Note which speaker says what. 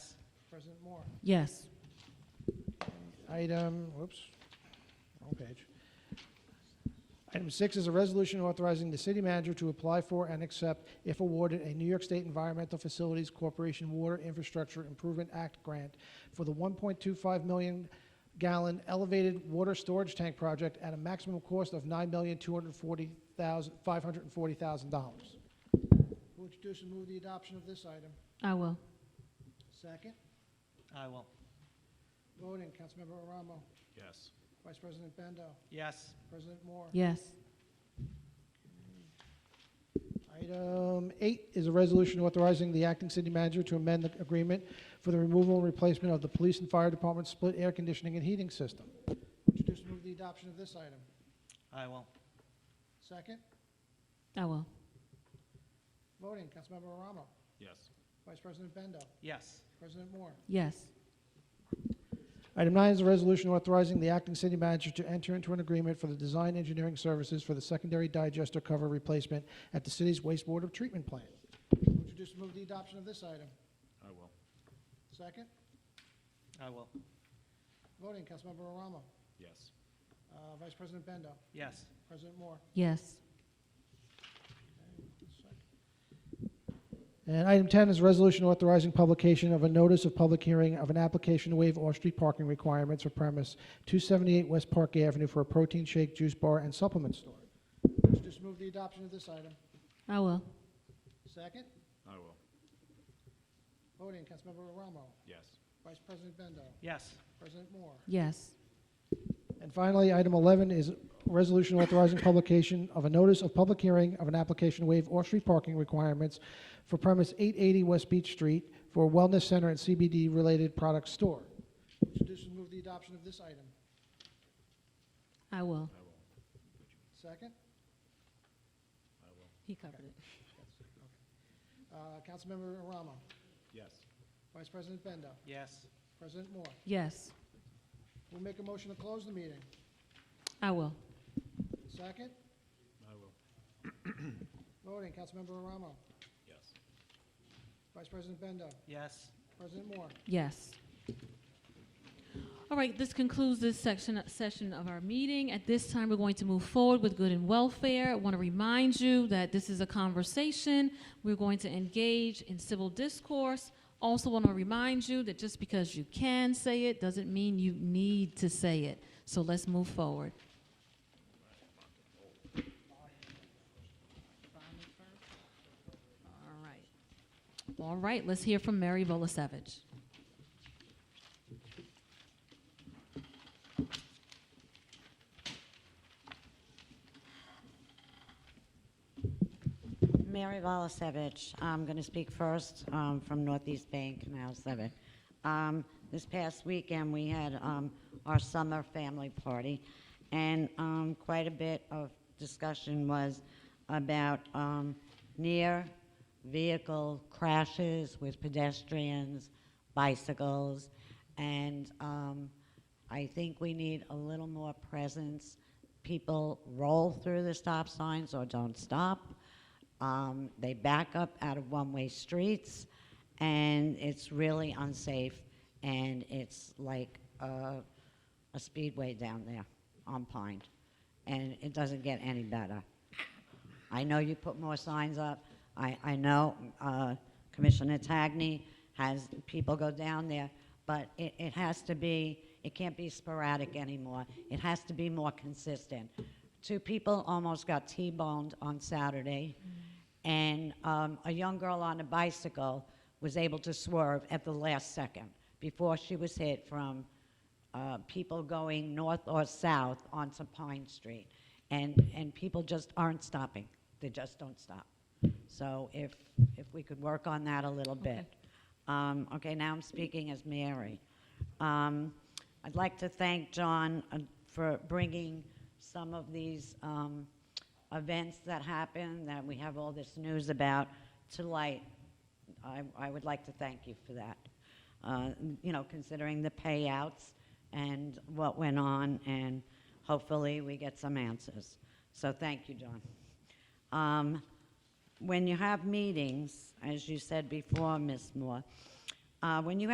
Speaker 1: President Moore.
Speaker 2: Yes.
Speaker 1: Item, whoops, wrong page. Item six is a resolution authorizing the city manager to apply for and accept, if awarded, a New York State Environmental Facilities Corporation Water Infrastructure Improvement Act grant for the 1.25 million gallon elevated water storage tank project at a maximum cost of $9,240,540,000. Who introduce and move the adoption of this item?
Speaker 2: I will.
Speaker 1: Second.
Speaker 3: I will.
Speaker 1: Voting, Councilmember Aramo.
Speaker 3: Yes.
Speaker 1: Vice President Bendo.
Speaker 3: Yes.
Speaker 1: President Moore.
Speaker 2: Yes.
Speaker 1: Item eight is a resolution authorizing the acting city manager to amend the agreement for the removal and replacement of the police and fire department's split air conditioning and heating system. Introduce and move the adoption of this item.
Speaker 3: I will.
Speaker 1: Second.
Speaker 2: I will.
Speaker 1: Voting, Councilmember Aramo.
Speaker 3: Yes.
Speaker 1: Vice President Bendo.
Speaker 3: Yes.
Speaker 1: President Moore.
Speaker 2: Yes.
Speaker 1: Item nine is a resolution authorizing the acting city manager to enter into an agreement for the design engineering services for the secondary digester cover replacement at the city's wastewater treatment plant. Introduce and move the adoption of this item.
Speaker 3: I will.
Speaker 1: Second.
Speaker 3: I will.
Speaker 1: Voting, Councilmember Aramo.
Speaker 3: Yes.
Speaker 1: Uh, Vice President Bendo.
Speaker 3: Yes.
Speaker 1: President Moore.
Speaker 2: Yes.
Speaker 1: And item 10 is a resolution authorizing publication of a notice of public hearing of an application to waive off-street parking requirements for premise 278 West Park Avenue for a protein shake, juice bar, and supplement store. Just move the adoption of this item.
Speaker 2: I will.
Speaker 1: Second.
Speaker 3: I will.
Speaker 1: Voting, Councilmember Aramo.
Speaker 3: Yes.
Speaker 1: Vice President Bendo.
Speaker 3: Yes.
Speaker 1: President Moore.
Speaker 2: Yes.
Speaker 1: And finally, item 11 is a resolution authorizing publication of a notice of public hearing of an application to waive off-street parking requirements for premise 880 West Beach Street for a wellness center and CBD-related product store. Introduce and move the adoption of this item.
Speaker 2: I will.
Speaker 3: I will.
Speaker 1: Second.
Speaker 3: I will.
Speaker 2: He covered it.
Speaker 1: Uh, Councilmember Aramo.
Speaker 3: Yes.
Speaker 1: Vice President Bendo.
Speaker 3: Yes.
Speaker 1: President Moore.
Speaker 2: Yes.
Speaker 1: We make a motion to close the meeting.
Speaker 2: I will.
Speaker 1: Second.
Speaker 3: I will.
Speaker 1: Voting, Councilmember Aramo.
Speaker 3: Yes.
Speaker 1: Vice President Bendo.
Speaker 3: Yes.
Speaker 1: President Moore.
Speaker 2: Yes. All right, this concludes this section, session of our meeting. At this time, we're going to move forward with good and welfare. I want to remind you that this is a conversation. We're going to engage in civil discourse. Also, want to remind you that just because you can say it doesn't mean you need to say it. So let's move forward. All right. All right, let's hear from Mary Bolasevich.
Speaker 4: Mary Volasevich, I'm going to speak first um, from Northeast Bank, now seven. Um, This past weekend, we had um, our summer family party, and um, quite a bit of discussion was about um, near-vehicle crashes with pedestrians, bicycles, and um, I think we need a little more presence. People roll through the stop signs or don't stop. Um, they back up out of one-way streets, and it's really unsafe. And it's like a, a speedway down there on Pine, and it doesn't get any better. I know you put more signs up. I, I know uh, Commissioner Tagney has people go down there, but it, it has to be, it can't be sporadic anymore. It has to be more consistent. Two people almost got T boned on Saturday, and um, a young girl on a bicycle was able to swerve at the last second before she was hit from uh, people going north or south onto Pine Street, and, and people just aren't stopping. They just don't stop. So if, if we could work on that a little bit. Um, okay, now I'm speaking as Mary. Um, I'd like to thank John uh, for bringing some of these um, events that happen, that we have all this news about, to light. I, I would like to thank you for that. Uh, you know, considering the payouts and what went on, and hopefully we get some answers. So thank you, John. Um, when you have meetings, as you said before, Ms. Moore, uh, when you have